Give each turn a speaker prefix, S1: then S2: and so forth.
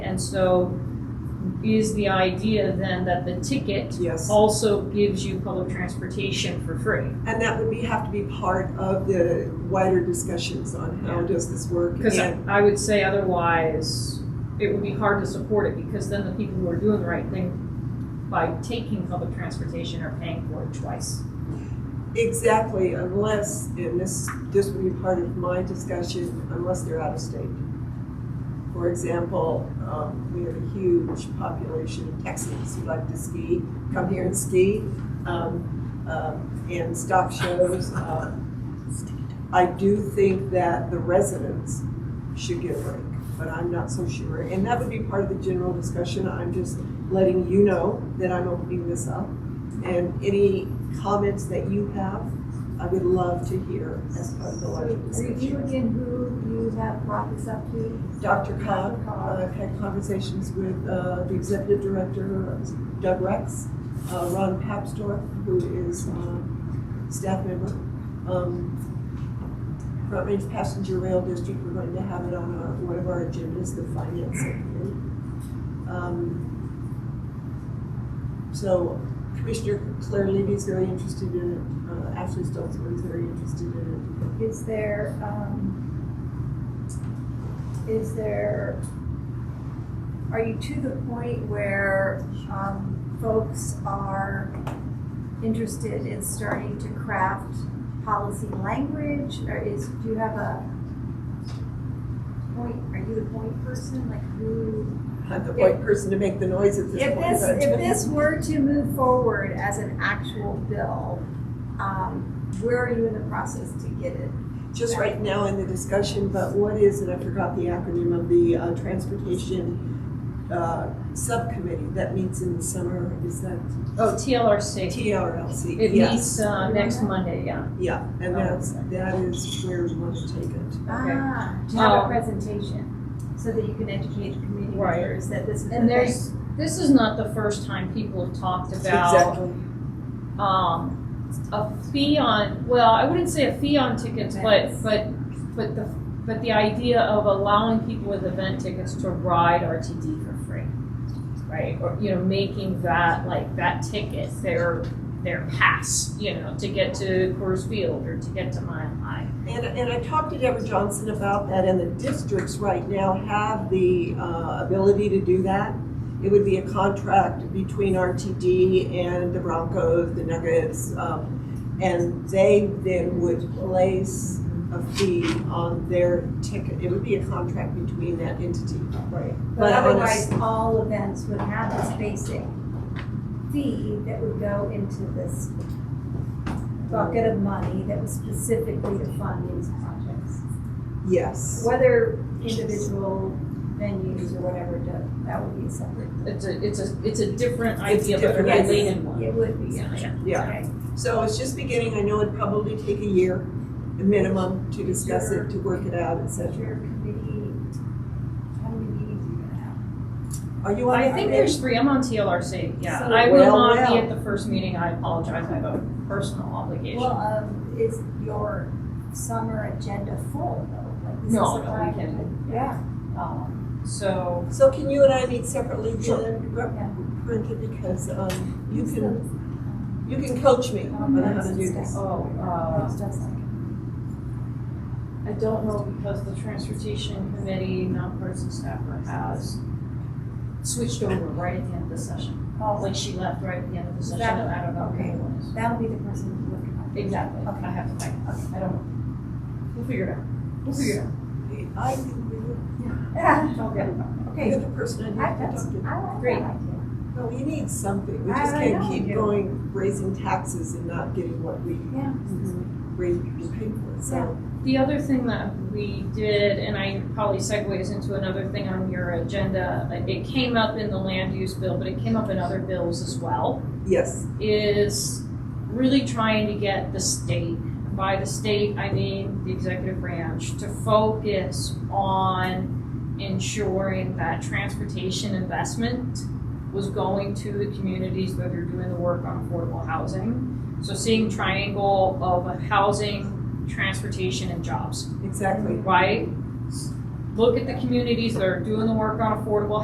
S1: And so is the idea then that the ticket
S2: Yes,
S1: also gives you public transportation for free?
S2: and that would be, have to be part of the wider discussions on how does this work?
S1: Because
S2: and-
S1: I would say otherwise, it would be hard to support it because then the people who are doing the right thing by taking public transportation are paying for it twice.
S2: Exactly, unless, and this, this would be part of my discussion, unless they're out of state. For example, um, we have a huge population of Texans who like to ski, come here and ski, um, um, and stop shows. Um, I do think that the residents should get a break, but I'm not so sure. And that would be part of the general discussion, I'm just letting you know that I'm opening this up. And any comments that you have, I would love to hear as part of the larger
S3: Review
S2: discussion.
S3: again who you have profits up to.
S2: Dr. Cog, uh, I've had conversations with uh, the executive director, Doug Rex, uh, Ron Papsdorf, who is um, staff member. Um, Front Range Passenger Rail District, we're going to have it on our- one of our agendas, the finance subcommittee. Um, So Commissioner Claire Levy is very interested in it, Uh, Ashley Stoltzman is very interested in it.
S3: Is there, um, is there, are you to the point where, um, folks are interested in starting to craft policy language? Or is, do you have a point, are you the point person, like who?
S2: I'm the right person to make the noise at this
S3: If
S2: point.
S3: this,
S2: but-
S3: if this were to move forward as an actual bill, um, where are you in the process to get it?
S2: just right now in the discussion, but what is, and I forgot the acronym of the uh, transportation uh, subcommittee that meets in the summer, is that
S1: Oh, TLRC.
S2: TRLC?
S1: It
S2: Yes.
S1: meets uh, next Monday, yeah.
S2: Yeah, and
S1: Oh.
S2: that's, that is where we want to take it.
S1: Okay.
S3: Ah, to have
S1: Um,
S3: a presentation, so that you can educate the community
S1: Right.
S3: members that this is the
S1: And
S3: thing.
S1: there's, this is not the first time people have talked about
S2: Exactly.
S1: um, a fee on, well, I wouldn't say a fee on tickets, but,
S3: Events.
S1: but, but the, but the idea of allowing people with event tickets to ride RTD for free, right? Or, you know, making that, like, that ticket their, their pass, you know, to get to Coors Field or to get to Mile High.
S2: And, and I talked to Deborah Johnson about that, and the districts right now have the uh, ability to do that. It would be a contract between RTD and the Broncos, the Nuggets, um, and they then would place a fee on their ticket. It would be a contract between that entity.
S1: Right.
S3: But
S2: but on a
S3: otherwise,
S2: s-
S3: all events would have this basic fee that would go into this bucket of money that was specifically to fund these projects.
S2: Yes.
S3: Whether individual venues or whatever, that- that would be a separate.
S1: It's a, it's a, it's a different
S2: It's
S1: idea, but a
S2: different.
S1: related one.
S3: It would be.
S1: Yeah, yeah.
S2: Yeah.
S3: Okay.
S2: So it's just beginning. I know it'd probably take a year, a minimum, to discuss it, to work it out, et
S3: But
S2: cetera.
S3: your committee, how many meetings are you gonna have?
S2: Are you on
S1: I
S2: that
S1: think
S2: page?
S1: there's three, I'm on TLRC, yeah.
S2: So-
S1: I will
S2: Well,
S1: not be
S2: well.
S1: at the first meeting, I apologize, I have a personal obligation.
S3: Well, um, is your summer agenda full though? Like, this
S1: No,
S3: is a
S1: no, we
S3: private-
S1: can-
S3: Yeah.
S1: Um, So,
S2: So can you and I meet separately
S1: Sure.
S2: then, Rep-
S3: Yeah.
S2: Brenda, because um, you can, you can coach me
S3: Oh,
S2: on how to do this.
S1: oh, uh,
S3: It's just like-
S1: I don't know because the transportation committee nonpartisan staffer has switched over right at the end of the session.
S3: Oh,
S1: Like she left right at the end of the session,
S3: That-
S1: I don't know who
S3: okay.
S1: it was.
S3: that'll be the person who's looking at it.
S1: Exactly,
S3: Okay.
S1: I have to find, out. I don't know. We'll figure it out, we'll figure it out.
S2: I think we would,
S3: Yeah,
S1: Okay.
S2: you're
S3: Okay,
S2: the person I
S3: I,
S2: need
S3: that's,
S2: to
S3: I
S2: talk
S3: like
S2: to.
S3: that
S1: Great.
S3: idea.
S2: No, we need something, we
S3: I-
S2: just
S3: I
S2: can't
S3: know we
S2: keep
S3: do.
S2: going, raising taxes and not getting what we,
S3: Yeah.
S2: we we pay for, so.
S1: The other thing that we did, and I probably segues into another thing on your agenda, like, it came up in the land use bill, but it came up in other bills as well.
S2: Yes,
S1: is really trying to get the state, by the state, I mean the executive branch, to focus on ensuring that transportation investment was going to the communities that are doing the work on affordable housing. So seeing triangle of housing, transportation, and jobs,
S2: exactly.
S1: right? Look at the communities that are doing the work on affordable